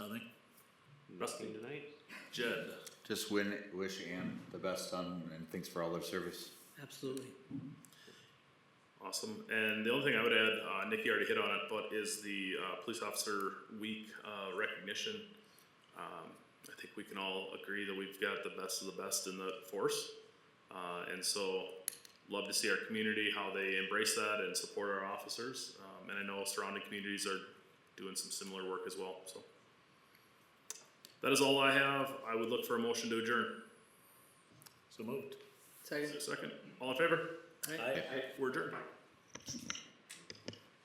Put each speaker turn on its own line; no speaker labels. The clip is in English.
wrestling tonight. Jed,
Just win, wish Ann the best on, and thanks for all their service.
Absolutely.
awesome. And the only thing I would add, uh, Nikki already hit on it, but is the uh, police officer week uh, recognition. Um, I think we can all agree that we've got the best of the best in the force, uh, and so love to see our community how they embrace that and support our officers. Um, and I know surrounding communities are doing some similar work as well. So that is all I have. I would look for a motion to adjourn.
So moved.
Is there
Second.
a second? All in favor?
Aye.
I,
We're adjourned.